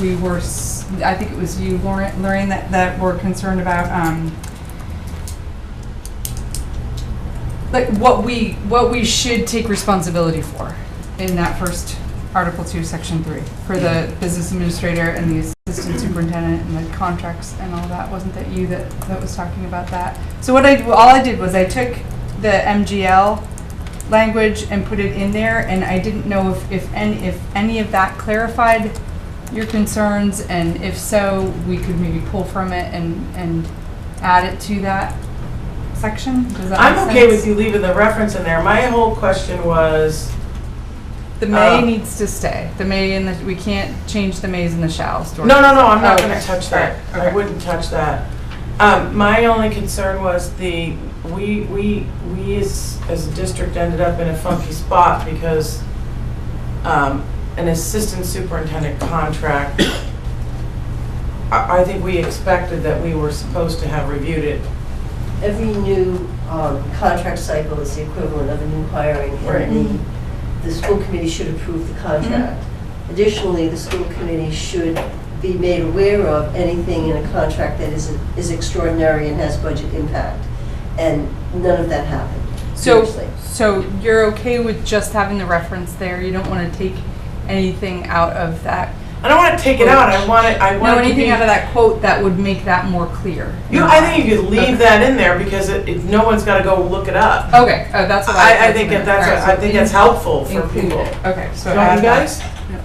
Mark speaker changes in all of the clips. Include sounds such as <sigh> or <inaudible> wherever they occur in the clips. Speaker 1: we were, s- I think it was you, Lauren, Lorraine, that, that were concerned about, um, like what we, what we should take responsibility for in that first Article Two, Section Three, for the business administrator and the assistant superintendent and the contracts and all that. Wasn't that you that, that was talking about that? So what I, all I did was I took the MGL language and put it in there, and I didn't know if, if any, if any of that clarified your concerns, and if so, we could maybe pull from it and, and add it to that section? Does that
Speaker 2: I'm
Speaker 1: make
Speaker 2: okay
Speaker 1: sense?
Speaker 2: with you leaving the reference in there. My whole question was,
Speaker 1: The may
Speaker 2: Uh,
Speaker 1: needs to stay. The may and the, we can't change the mays and the shalls.
Speaker 2: no, no, no, I'm not
Speaker 1: Oh,
Speaker 2: gonna touch that.
Speaker 1: alright,
Speaker 2: I
Speaker 1: okay.
Speaker 2: wouldn't touch that. Um, my only concern was the, we, we, we as, as a district ended up in a funky spot because um, an assistant superintendent contract, I, I think we expected that we were supposed to have reviewed it
Speaker 3: Every new um, contract cycle is the equivalent of a new hiring. and
Speaker 2: Right.
Speaker 3: the- The school committee should approve the contract. Additionally, the school committee should be made aware of anything in a contract that is is extraordinary and has budget impact. And none of that happened.
Speaker 1: So,
Speaker 3: Seriously.
Speaker 1: so you're okay with just having the reference there? You don't want to take anything out of that?
Speaker 2: I don't want to take it out. I want it. I want
Speaker 1: No,
Speaker 2: it to
Speaker 1: anything
Speaker 2: be-
Speaker 1: out of that quote that would make that more clear?
Speaker 2: You, I think you could
Speaker 1: Okay.
Speaker 2: leave that in there because it, it, no one's got to go look it up.
Speaker 1: Okay, oh, that's what I.
Speaker 2: I, I think that that's
Speaker 1: Alright, so
Speaker 2: I think that's helpful for
Speaker 1: include
Speaker 2: people.
Speaker 1: it. Okay, so
Speaker 2: Don't
Speaker 1: add
Speaker 2: you
Speaker 1: that.
Speaker 2: guys?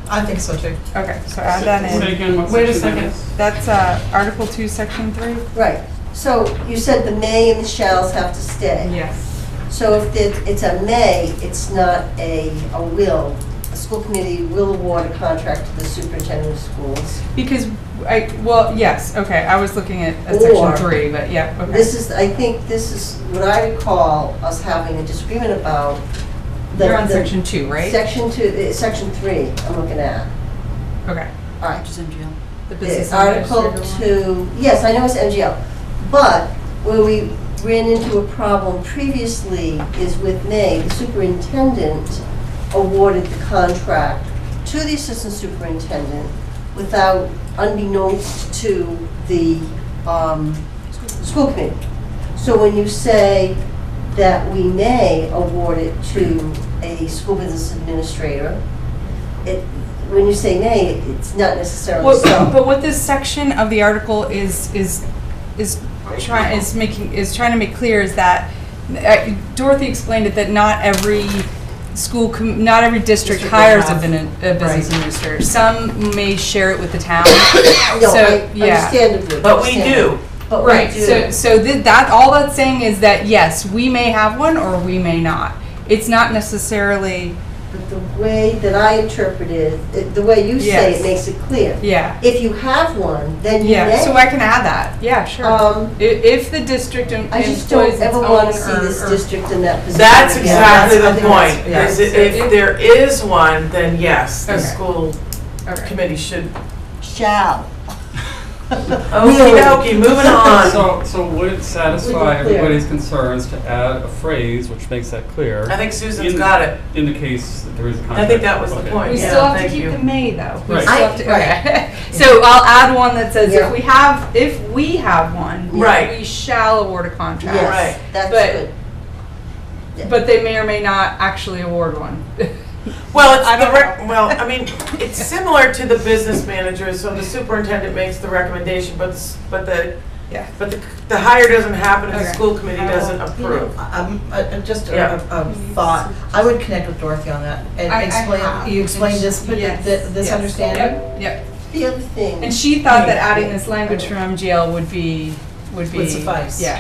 Speaker 4: I think so too.
Speaker 1: Okay, so add that
Speaker 5: Say
Speaker 1: in.
Speaker 5: again, what
Speaker 1: Wait a
Speaker 5: section that
Speaker 1: second,
Speaker 5: is?
Speaker 1: that's, uh, Article two, Section three?
Speaker 3: Right. So you said the may and the shalls have to stay.
Speaker 1: Yes.
Speaker 3: So if it- it's a may, it's not a, a will. A school committee will award a contract to the superintendent of schools.
Speaker 1: Because I, well, yes, okay, I was looking at at Section
Speaker 3: Or-
Speaker 1: three, but yeah, okay.
Speaker 3: This is, I think this is what I recall us having a disagreement about. the-
Speaker 1: You're on
Speaker 3: the-
Speaker 1: Section two, right?
Speaker 3: Section two, uh, section three, I'm looking at.
Speaker 1: Okay.
Speaker 3: All right.
Speaker 1: The business
Speaker 3: The Article
Speaker 1: administrator one.
Speaker 3: two, yes, I know it's MGL, but where we ran into a problem previously is with May, the superintendent awarded the contract to the assistant superintendent without, unbeknownst to the, um, school committee. So when you say that we may award it to a school business administrator, it, when you say may, it's not necessarily
Speaker 1: Well,
Speaker 3: so.
Speaker 1: but what this section of the article is, is, is trying, is making, is trying to make clear is that, uh, Dorothy explained it, that not every school, com- not every district
Speaker 2: District will
Speaker 1: hires a
Speaker 2: have-
Speaker 1: bin- a business
Speaker 2: Right.
Speaker 1: administrator. Some may share it with the town,
Speaker 3: No,
Speaker 1: so,
Speaker 3: I-
Speaker 1: yeah.
Speaker 3: understandably.
Speaker 2: But we do.
Speaker 3: But we
Speaker 1: Right, so,
Speaker 3: do.
Speaker 1: so thi- that, all that's saying is that, yes, we may have one or we may not. It's not necessarily,
Speaker 3: But the way that I interpret it, it- the way you say
Speaker 1: Yes.
Speaker 3: it makes it clear.
Speaker 1: yeah.
Speaker 3: If you have one, then you
Speaker 1: Yeah,
Speaker 3: may.
Speaker 1: so I can add that, yeah, sure.
Speaker 3: Um,
Speaker 1: I- If, the district em-
Speaker 3: I
Speaker 1: employs
Speaker 3: just
Speaker 1: its
Speaker 3: don't ever
Speaker 1: own
Speaker 3: want to see
Speaker 1: or-
Speaker 3: this
Speaker 1: or-
Speaker 3: district in that position.
Speaker 2: That's
Speaker 3: again.
Speaker 2: exactly
Speaker 3: That's- I
Speaker 2: the
Speaker 3: think that's-
Speaker 2: point.
Speaker 4: yeah.
Speaker 2: Is it- if there is one, then yes, the
Speaker 1: Okay.
Speaker 2: school
Speaker 1: Okay.
Speaker 2: committee should.
Speaker 3: Shall.
Speaker 2: Okie dokie, moving on.
Speaker 5: So, so would it
Speaker 3: Would
Speaker 5: satisfy
Speaker 3: it clear?
Speaker 5: everybody's concerns to add a phrase which makes that clear?
Speaker 2: I think Susan's got it.
Speaker 5: In the case that there is a contract.
Speaker 2: I think that was the
Speaker 5: Okay.
Speaker 2: point.
Speaker 1: We
Speaker 2: Yeah,
Speaker 1: still have to
Speaker 2: thank
Speaker 1: keep
Speaker 2: you.
Speaker 1: the may though. We
Speaker 5: Right.
Speaker 1: still have to-
Speaker 3: I-
Speaker 1: <laughs> okay. So I'll add one that says
Speaker 3: Yeah.
Speaker 1: if we have, if we have one,
Speaker 2: Right.
Speaker 1: we shall award a contract.
Speaker 2: Right.
Speaker 3: Yes, that's
Speaker 1: But-
Speaker 3: good.
Speaker 1: But they may or may not actually award one.
Speaker 2: Well, it's
Speaker 1: I
Speaker 2: the
Speaker 1: don't
Speaker 2: rec, well, I mean, it's similar to the business manager, so the superintendent makes the recommendation, but, s- but the,
Speaker 1: Yeah.
Speaker 2: but the, the hire doesn't happen if the
Speaker 1: Okay.
Speaker 2: school committee
Speaker 1: I will-
Speaker 2: doesn't
Speaker 4: You know,
Speaker 2: approve.
Speaker 4: um, uh, uh, just
Speaker 2: Yeah.
Speaker 4: a, a a thought, I would connect with Dorothy on that and
Speaker 1: I- I have.
Speaker 4: explain, you explain
Speaker 1: And
Speaker 4: this,
Speaker 1: she-
Speaker 4: but
Speaker 1: yes,
Speaker 4: th- this
Speaker 1: yes.
Speaker 4: understanding
Speaker 1: Yep, yep.
Speaker 3: The other thing.
Speaker 1: And she thought that adding this language from MGL would be, would be.
Speaker 4: would suffice.
Speaker 1: Yeah.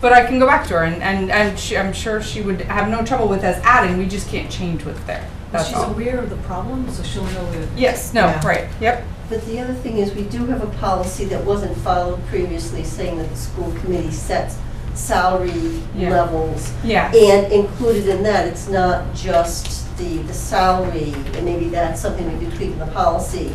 Speaker 1: But I can go back to her and, and, and she- I'm sure she would have no trouble with us adding, we just can't change what's there.
Speaker 6: Well,
Speaker 1: That's
Speaker 6: she's
Speaker 1: all.
Speaker 6: aware of the problem, so she'll know that
Speaker 1: Yes, no,
Speaker 4: Yeah.
Speaker 1: right, yep.
Speaker 3: But the other thing is, we do have a policy that wasn't followed previously, saying that the school committee sets salary
Speaker 1: Yeah.
Speaker 3: levels.
Speaker 1: Yeah.
Speaker 3: And included in that, it's not just the, the salary, and maybe that's something we could tweak in the policy,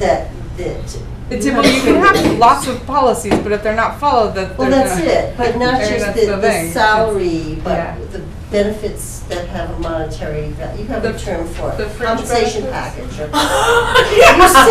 Speaker 3: that, that.
Speaker 1: It's, well, you can have lots of policies, but if they're not followed, that.
Speaker 3: Well,
Speaker 1: they're
Speaker 3: that's
Speaker 1: not- <laughs>
Speaker 3: it, <laughs> but not
Speaker 1: There,
Speaker 3: just
Speaker 1: that's
Speaker 3: the,
Speaker 1: the
Speaker 3: the
Speaker 1: thing.
Speaker 3: salary,
Speaker 1: Yeah.
Speaker 3: but the benefits that have a monetary, value. you have
Speaker 1: The-
Speaker 3: a term for
Speaker 1: the
Speaker 3: it,
Speaker 1: fringe <laughs>
Speaker 3: compensation
Speaker 1: benefits?
Speaker 2: <laughs>
Speaker 3: package. or-